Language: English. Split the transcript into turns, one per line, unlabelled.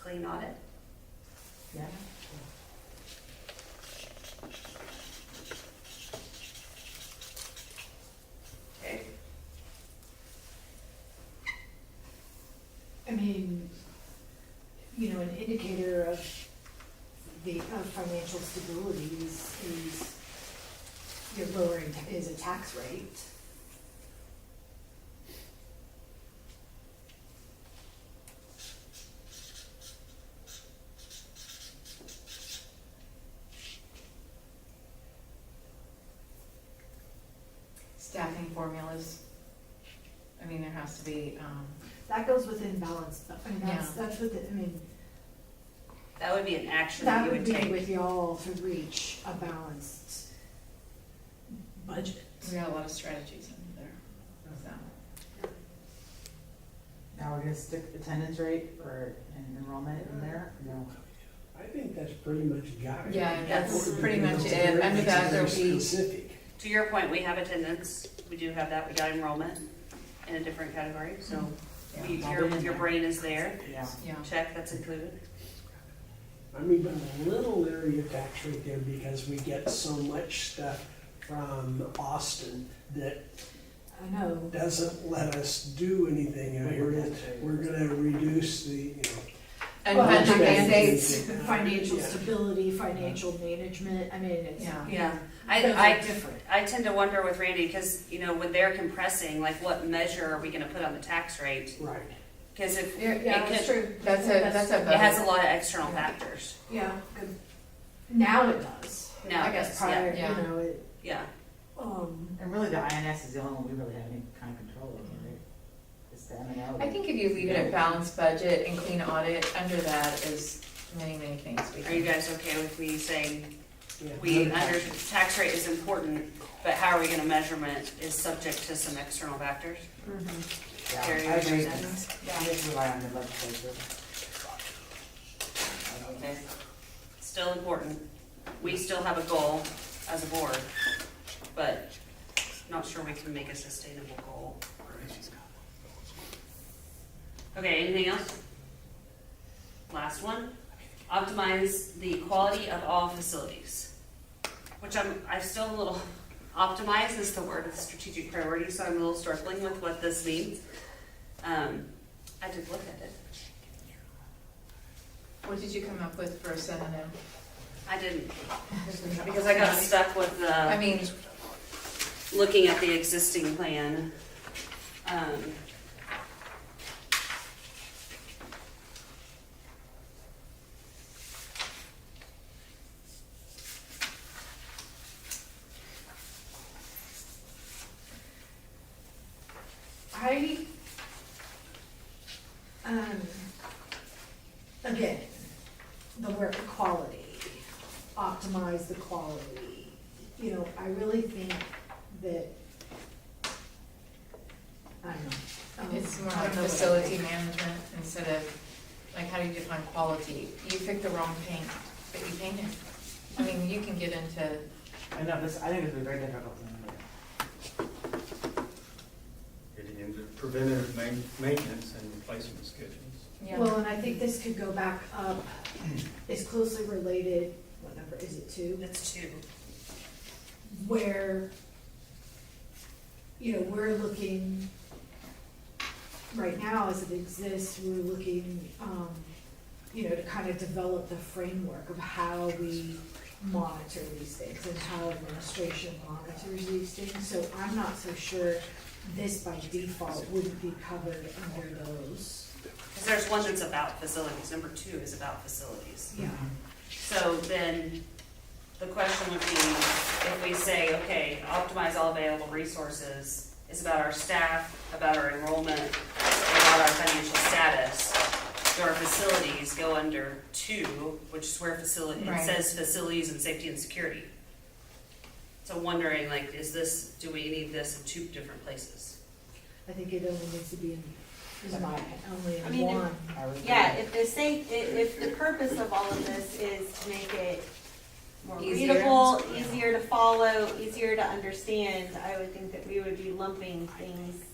clean audit.
Yeah.
Okay.
I mean, you know, an indicator of the, of financial stability is, is your lowering, ta- is a tax rate.
Staffing formulas. I mean, there has to be, um,
That goes within balance, but, I mean, that's,
Yeah.
that's what, the- I mean,
That would be an action that
that
you
would
would
be
take.
with y'all to reach a balanced budget.
we got a lot of strategies in there, so.
Now we're gonna stick attendance rate or en- enrollment in there? No.
I think that's pretty much got it.
Yeah,
that's
pretty much it. Under that, there'll be-
Specific.
To your point, we have attendance, we do have that, we got enrollment in a different category, so
Yeah,
we-
I'll
your,
be in
your
there.
brain is there.
Yeah.
Yeah,
Check, that's included.
I mean, but I'm a little leery of tax rate there because we get so much stuff from Austin that
I know,
doesn't let us do anything. And we're, gonna- we're gonna reduce the, you know,
and
Well,
budget
I guess
mandates.
financial
Yeah.
stability, financial management, I mean, it's,
Yeah.
you know,
I-
those are
I-
different.
I tend to wonder with Randy, because, you know, when they're compressing, like what measure are we gonna put on the tax rate?
right.
Because if,
Yeah,
it
yeah, that's
could,
true.
That's a, that's a.
it has a
vote.
lot of external factors.
Yeah, good. Now it does.
Now
I
it
guess
does,
prior, you
yeah.
know, it,
Yeah,
um,
And really, the INS is the only one we really have any kind of control over, right? It's the M and O.
I think if you leave it at balanced budget and clean audit, under that is many, many things we
are you
can.
guys okay with me saying
Yeah.
We, under, tax rate is important, but how are we gonna measurement is subject to some external factors.
Mm-hmm.
Yeah, I
Carry
agree.
over
Just rely on the legislature.
Okay. Still important. We still have a goal as a board, but not sure we can make a sustainable goal. Okay, anything else? Last one, optimize the quality of all facilities. Which I'm, I'm still a little, optimize is the word of strategic priority, so I'm a little struggling with what this means. Um, I did look at it.
What did you come up with for a synonym?
I didn't, because I got stuck with the.
I mean,
looking at the existing plan. um,
I, um, again, the word quality, optimize the quality. You know, I really think that, I don't know. um,
it's more
I
like
don't know what I
facility
think.
management instead of, like, how do you define quality? You picked the wrong paint, but you painted. I mean, you can get into,
I know, this, I think it's very difficult to remember.
Getting into preventative main- maintenance and replacement schedules.
yeah.
Well, and I think this could go back up, it's closely related, what number is it, two?
That's two.
Where, you know, we're looking, right now as it exists, we're looking, um, you know, to kind of develop the framework of how we monitor these things and how administration monitors these things. So I'm not so sure this by default wouldn't be covered under those,
Because there's one that's about facilities, number two is about facilities.
yeah.
So then, the question would be, if we say, okay, optimize all available resources, is about our staff, about our enrollment, about our financial status. Do our facilities go under two, which is where facility, it
Right.
says facilities and safety and security. So wondering, like, is this, do we need this in two different places?
I think it only needs to be in, is my, only
I
in
mean, if-
one.
I would
Yeah,
agree.
if the state, if, if the purpose of all of this is to make it more
Easier.
readable, easier to follow, easier to understand, I would think that we would be lumping things